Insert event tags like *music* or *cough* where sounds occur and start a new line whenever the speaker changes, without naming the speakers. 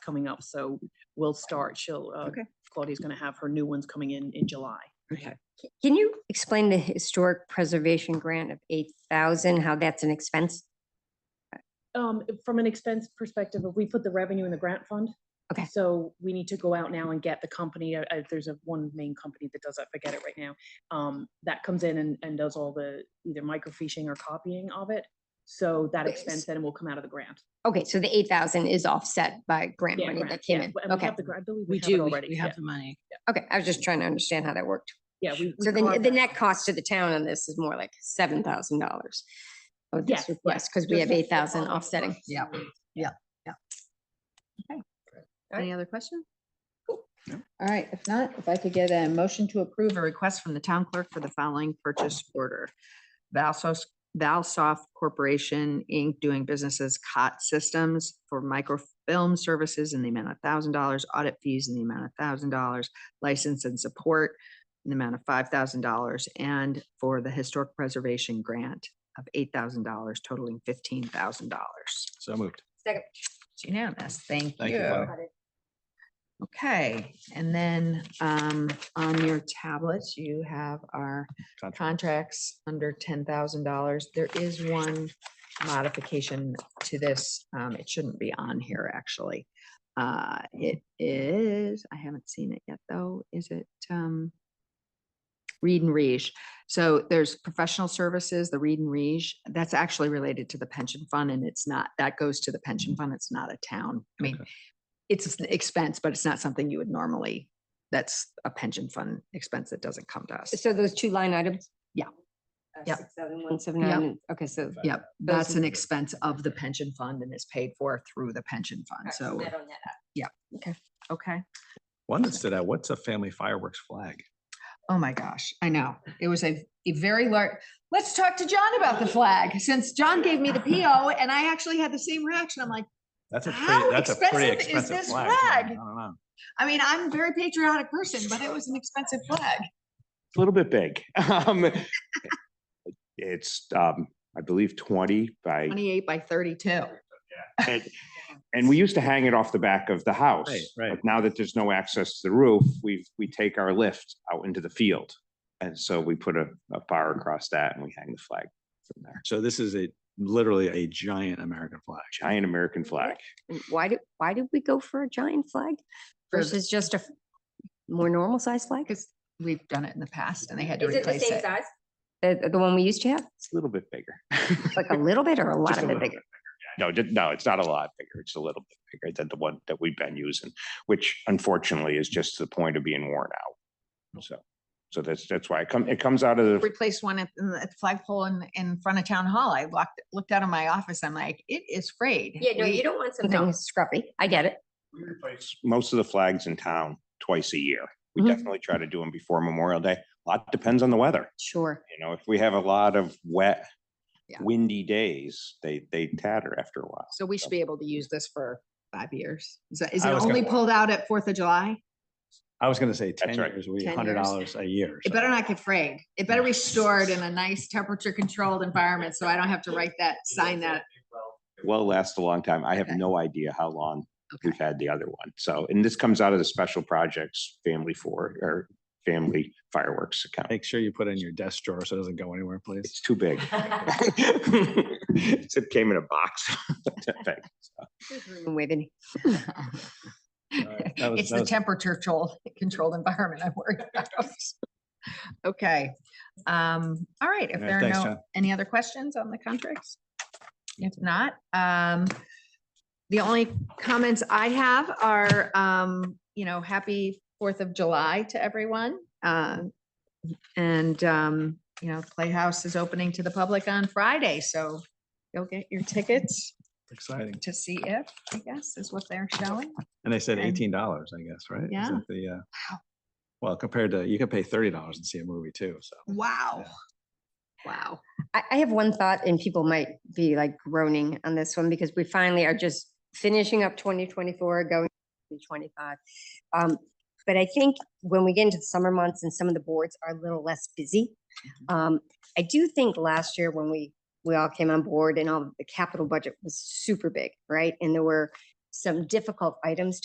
coming up, so we'll start. She'll, uh,
Okay.
Claudia's gonna have her new ones coming in in July.
Okay.
Can you explain the historic preservation grant of eight thousand, how that's an expense?
Um, from an expense perspective, if we put the revenue in the grant fund.
Okay.
So we need to go out now and get the company, uh, uh, there's a one main company that does that, forget it right now. Um, that comes in and, and does all the either microfishing or copying of it. So that
Wait,
expense
s-
then will come out of the grant.
Okay, so the eight thousand is offset by grant
Yeah,
money
grant,
that came
yeah.
in.
And we
Okay,
have the gra- I believe
We
have it
do, we-
already,
we
yeah,
have the money.
okay, I was just trying to understand how that worked.
Yeah. we- we
So the,
carved
the
that
net
out.
cost to the town on this is more like seven thousand dollars. of
Yes, yes,
this request, because we
just
have
like
eight thousand
all of the
offsetting.
costs.
Yeah.
Any
other question?
All right, if not, if I could get a motion to approve a request from the town clerk for the following purchase order. Valsos, Valsoft Corporation, Inc., doing businesses COT Systems for microfilm services in the amount of thousand dollars, audit fees in the amount of thousand dollars, license and support in the amount of five thousand dollars, and for the historic preservation grant of eight thousand dollars totaling fifteen thousand dollars.
So moved.
It's unanimous. Thank
Thank you,
you.
Bonnie.
Okay, and then um on your tablets, you have our contracts under ten thousand dollars. There is one modification to this. Um, it shouldn't be on here, actually. Uh, it is, I haven't seen it yet, though. Is it um Reed and Reach? So there's professional services, the Reed and Reach, that's actually related to the pension fund and it's not, that goes to the pension fund. It's not a town. I mean,
Okay.
it's an expense, but it's not something you would normally, that's a pension fund expense that doesn't come to us.
So those two line items? Uh,
Yeah. Yep.
Six thousand one seven nine, okay, so.
Yep,
Those
that's
are-
an expense of the pension fund and is paid for through the pension fund,
All
so,
right, that on that.
okay.
One that stood out, what's a family fireworks flag?
Oh my gosh, I know, it was a, a very large, let's talk to John about the flag, since John gave me the PO and I actually had the same reaction, I'm like,
That's a
How
pretty, that's a pretty
expensive is
expensive
this
flag. I
flag?
mean, I don't know.
I mean, I'm a very patriotic person, but it was an expensive flag.
It's a little bit big. *laughs* Um, It's, um, I believe twenty by,
Twenty-eight by thirty-two.
and, and we used to hang it off the back of the house.
Right, right.
But now that there's no access to the roof, we, we take our lift out into the field. And so we put a, a bar across that and we hang the flag from there.
So this is a, literally a giant American flag.
Giant American flag.
And Why did, why did we go for a giant flag
For the-
versus just a f- more normal size flag?
Because we've done it in the past and they had to replace it.
size? Uh, The, the one we used to have,
It's a little bit bigger. *laughs*
like a little bit or a lot
Just
of
a
it
little
bigger?
No, ju- no, it's not a lot bigger. It's a little bit bigger than the one that we've been using, which unfortunately is just to the point of being worn out. So, so that's, that's why it come, it comes out of the
replaced one at, in the- at the flagpole in, in front of town hall. I walked, looked out of my office. I'm like, it is frayed.
Yeah, no, you
We-
don't want
No.
something scruffy. I get it.
We replace most of the flags in town twice a year. We
Mhm.
definitely try to do them before Memorial Day. A Lot depends on the weather.
Sure.
You know, if we have a lot of wet,
Yeah.
windy days, they, they tatter after a while.
So we should be able to use this for five years. Is that, is it
I was gonna-
only pulled out at Fourth of July?
I was gonna say ten
That's right.
years, we
10
hundred
years.
dollars a year.
It
so
better not get frayed. It better be stored in a nice temperature controlled environment. So I don't have to write that, sign that.
Well, lasts a long time. I have
Okay.
no idea how long
Okay.
we've had the other one. So, and this comes out of the special projects, family for, or family fireworks account.
Make sure you put it in your desk drawer so it doesn't go anywhere, please.
It's too big.
*laughs*
*laughs* It came in a box. *laughs*
Waving.
right, that was-
It's
that
the
was-
temperature control, *laughs* controlled environment I'm worried *laughs* about. Okay, um, all right, if
Yeah,
there are
thanks,
no,
John.
any other questions on the contracts? If not, um, the only comments I have are, um, you know, happy Fourth of July to everyone. Uh, and, um, you know, Playhouse is opening to the public on Friday, so you'll get your tickets
Exciting.
to see if, I guess, is what they're showing.
And they said
And-
eighteen dollars, I guess, right? Is
Yeah.
that The, uh, well, compared to, you can pay thirty dollars and see a movie too, so.
Wow. Wow.
I, I have one thought and people might be like groaning on this one because we finally are just finishing up twenty twenty-four, going to twenty-five. Um, but I think when we get into the summer months and some of the boards are a little less busy. Um, I do think last year when we, we all came on board and all the capital budget was super big, right? And there were some difficult items